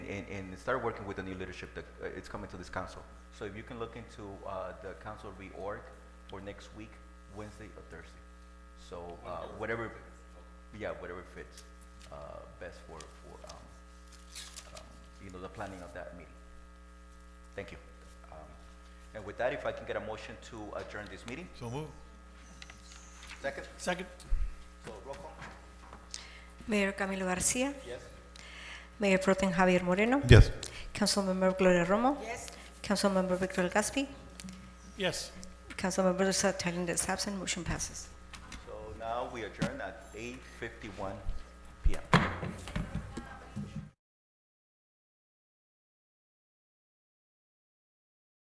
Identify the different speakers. Speaker 1: and, and start working with the new leadership that uh, it's coming to this council. So if you can look into uh, the council reorg for next week, Wednesday or Thursday. So uh, whatever, yeah, whatever fits uh, best for, for, um, um, you know, the planning of that meeting. Thank you. Um, And with that, if I can get a motion to adjourn this meeting?
Speaker 2: So move.
Speaker 1: Second?
Speaker 2: Second.
Speaker 1: So roll call?
Speaker 3: Mayor Camilo Garcia,
Speaker 1: Yes?
Speaker 3: Mayor Pro Tem Javier Moreno,
Speaker 2: Yes.
Speaker 3: Councilmember Gloria Romo, Councilmember Victor Gaspi,
Speaker 2: Yes.
Speaker 3: Councilmember Satalia is absent, motion passes.
Speaker 1: So now we adjourn at eight fifty-one PM.